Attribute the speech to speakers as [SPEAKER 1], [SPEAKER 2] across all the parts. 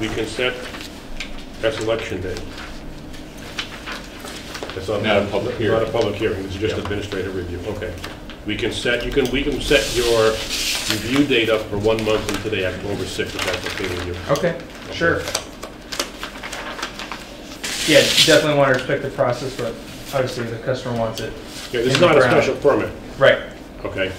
[SPEAKER 1] we can set, that's election day. That's not.
[SPEAKER 2] Not a public hearing.
[SPEAKER 1] Not a public hearing, it's just
[SPEAKER 2] Yeah.
[SPEAKER 1] administrative review, okay. We can set, you can, we can set your review date up for one month from today, October 6th, if that's okay with you.
[SPEAKER 3] Okay, sure. Yeah, definitely want to respect the process, but obviously the customer wants it.
[SPEAKER 1] Yeah, This is
[SPEAKER 3] in the
[SPEAKER 1] not a
[SPEAKER 3] ground.
[SPEAKER 1] special permit,
[SPEAKER 3] Right,
[SPEAKER 1] okay?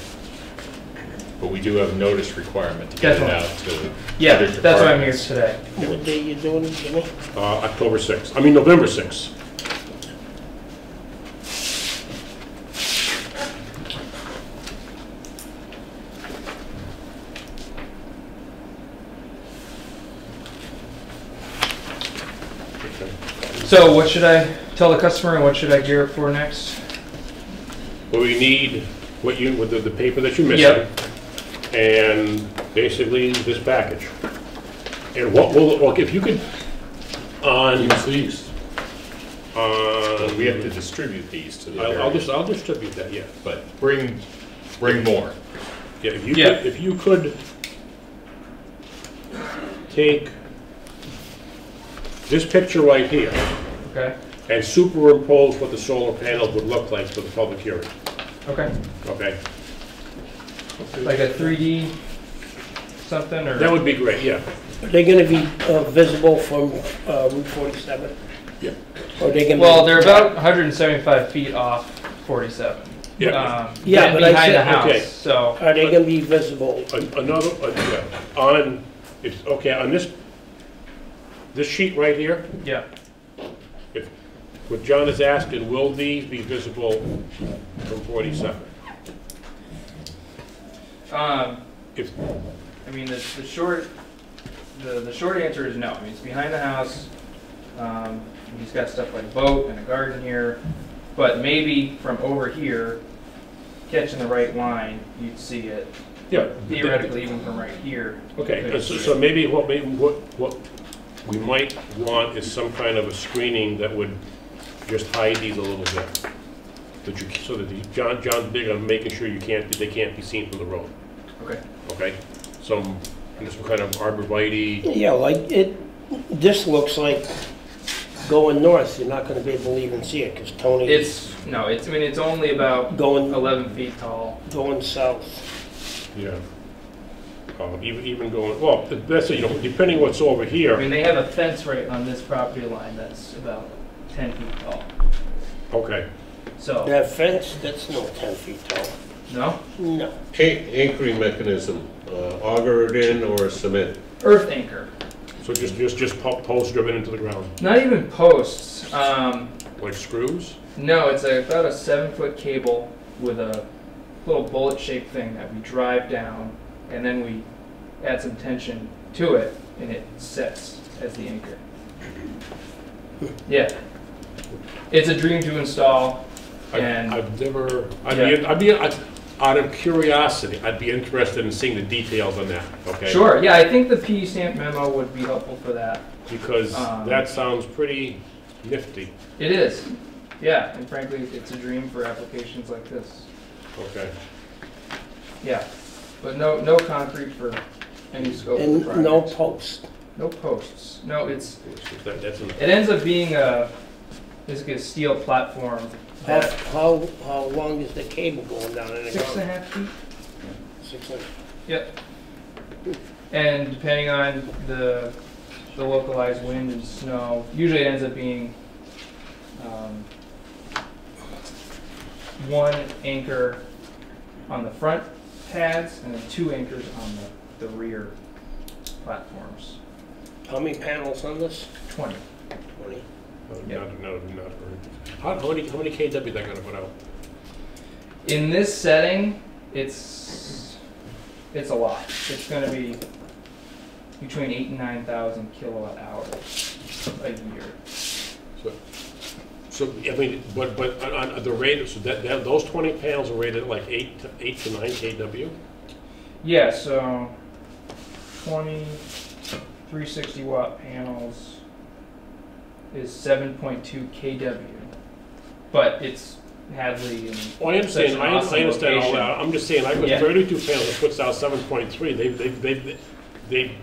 [SPEAKER 2] But we do have a notice requirement to get it
[SPEAKER 3] Definitely.
[SPEAKER 2] out to.
[SPEAKER 3] yeah,
[SPEAKER 2] other
[SPEAKER 3] that's why I'm here
[SPEAKER 2] departments.
[SPEAKER 3] today.
[SPEAKER 4] What day you doing it, Jimmy?
[SPEAKER 1] Uh, October 6th, I mean, November 6th. Okay.
[SPEAKER 3] So what should I tell the customer and what should I gear up for next?
[SPEAKER 1] What we need, what you, with the- the paper that you're missing,
[SPEAKER 3] Yep.
[SPEAKER 1] and basically this package. And what will, well, if you could, on, uh,
[SPEAKER 2] Please.
[SPEAKER 1] on.
[SPEAKER 2] We have to distribute these to the
[SPEAKER 1] I'll, I'll
[SPEAKER 2] various,
[SPEAKER 1] just, I'll distribute that, yeah.
[SPEAKER 2] but bring, bring more.
[SPEAKER 1] Yeah, if you
[SPEAKER 3] Yeah.
[SPEAKER 1] could, if you could take this picture right here
[SPEAKER 3] Okay,
[SPEAKER 1] and superimpose what the solar panels would look like for the public hearing,
[SPEAKER 3] okay,
[SPEAKER 1] okay?
[SPEAKER 3] like a 3D something or?
[SPEAKER 1] That would be great, yeah.
[SPEAKER 4] Are they gonna be uh, visible from uh, Route 47?
[SPEAKER 1] Yeah.
[SPEAKER 4] Or they gonna?
[SPEAKER 3] Well, they're about 175 feet off 47. Um,
[SPEAKER 4] Yeah,
[SPEAKER 3] and
[SPEAKER 4] but I
[SPEAKER 3] behind the
[SPEAKER 4] said-
[SPEAKER 1] okay.
[SPEAKER 3] house, so,
[SPEAKER 4] Are they gonna be visible?
[SPEAKER 1] An- Another, uh, yeah, on, it's, okay, on this, this sheet right here,
[SPEAKER 3] yeah,
[SPEAKER 1] if, what John is asking, will these be visible from 47?
[SPEAKER 3] um,
[SPEAKER 1] If,
[SPEAKER 3] I mean, the, the short, the, the short answer is no. I mean, it's behind the house. Um, he's got stuff like a boat and a garden here, but maybe from over here, catching the right line, you'd see it
[SPEAKER 1] yeah.
[SPEAKER 3] theoretically even from right here.
[SPEAKER 1] Okay,
[SPEAKER 3] Could've
[SPEAKER 1] so
[SPEAKER 3] seen
[SPEAKER 1] so
[SPEAKER 3] it.
[SPEAKER 1] maybe what, maybe what, what we might want is some kind of a screening that would just hide these a little bit. That you, so that the, John, John's big on making sure you can't, they can't be seen from the road,
[SPEAKER 3] Okay.
[SPEAKER 1] okay? Some, and some kind of arborvitae,
[SPEAKER 4] Yeah, like it, this looks like going north, you're not gonna be able to even see it, because Tony is
[SPEAKER 3] It's, no, it's, I mean, it's only about
[SPEAKER 4] going,
[SPEAKER 3] 11 feet tall.
[SPEAKER 4] going south.
[SPEAKER 1] yeah. Uh, even, even going, well, that's, you know, depending what's over
[SPEAKER 3] I
[SPEAKER 1] here,
[SPEAKER 3] mean, they have a fence right on this property line that's about 10 feet tall.
[SPEAKER 1] okay.
[SPEAKER 3] So,
[SPEAKER 4] That fence, that's no 10 feet tall.
[SPEAKER 3] no?
[SPEAKER 4] No.
[SPEAKER 5] Anchoring mechanism, uh, auger it in or cement?
[SPEAKER 3] Earth anchor.
[SPEAKER 1] So just, just, just po- posts driven into the ground,
[SPEAKER 3] Not even posts. Um,
[SPEAKER 1] like screws?
[SPEAKER 3] no, it's a, about a seven foot cable with a little bullet shaped thing that we drive down and then we add some tension to it and it sets as the anchor. Yeah. It's a dream to install
[SPEAKER 1] I-
[SPEAKER 3] and
[SPEAKER 1] I've never, I'd be, I'd be, I'd- out of curiosity, I'd be interested in seeing the details on that, okay?
[SPEAKER 3] sure, yeah, I think the P E stamp memo would be helpful for that.
[SPEAKER 1] Because
[SPEAKER 3] Um,
[SPEAKER 1] that sounds pretty nifty,
[SPEAKER 3] It is. Yeah, and frankly it's a dream for applications like this.
[SPEAKER 1] okay?
[SPEAKER 3] Yeah. But no no concrete for any scope of
[SPEAKER 4] And
[SPEAKER 3] project.
[SPEAKER 4] no post.
[SPEAKER 3] No posts. No, it's,
[SPEAKER 1] That- That's, an-
[SPEAKER 3] it ends up being a, basically a steel platform.
[SPEAKER 4] How,
[SPEAKER 3] that-
[SPEAKER 4] how, how long is the cable going down in the
[SPEAKER 3] Six and
[SPEAKER 4] ground?
[SPEAKER 3] a half feet?
[SPEAKER 4] Six and
[SPEAKER 3] Yep. And depending on the, the localized wind and snow, usually it ends up being, um, one anchor on the front pads and then two anchors on the, the rear platforms.
[SPEAKER 4] How many panels on this?
[SPEAKER 3] Twenty.
[SPEAKER 4] 20.
[SPEAKER 1] not, not, not, how, how many, how many KW they gonna put out?
[SPEAKER 3] In this setting, it's it's a lot. It's going to be between eight and nine thousand kilowatt hours a year.
[SPEAKER 1] So, I mean, but, but on, on the rate, so that, that, those twenty panels are rated like eight, to eight to nine KW?
[SPEAKER 3] Yeah, so 20 360 watt panels is 7.2 kW, but it's Hadley and
[SPEAKER 1] Well, Oh, I
[SPEAKER 3] Such
[SPEAKER 1] understand,
[SPEAKER 3] an
[SPEAKER 1] I
[SPEAKER 3] awesome
[SPEAKER 1] I understand all
[SPEAKER 3] location.
[SPEAKER 1] that, I'm just saying, I put
[SPEAKER 3] Yeah.
[SPEAKER 1] thirty-two panels, it puts out seven point three, they, they, they, they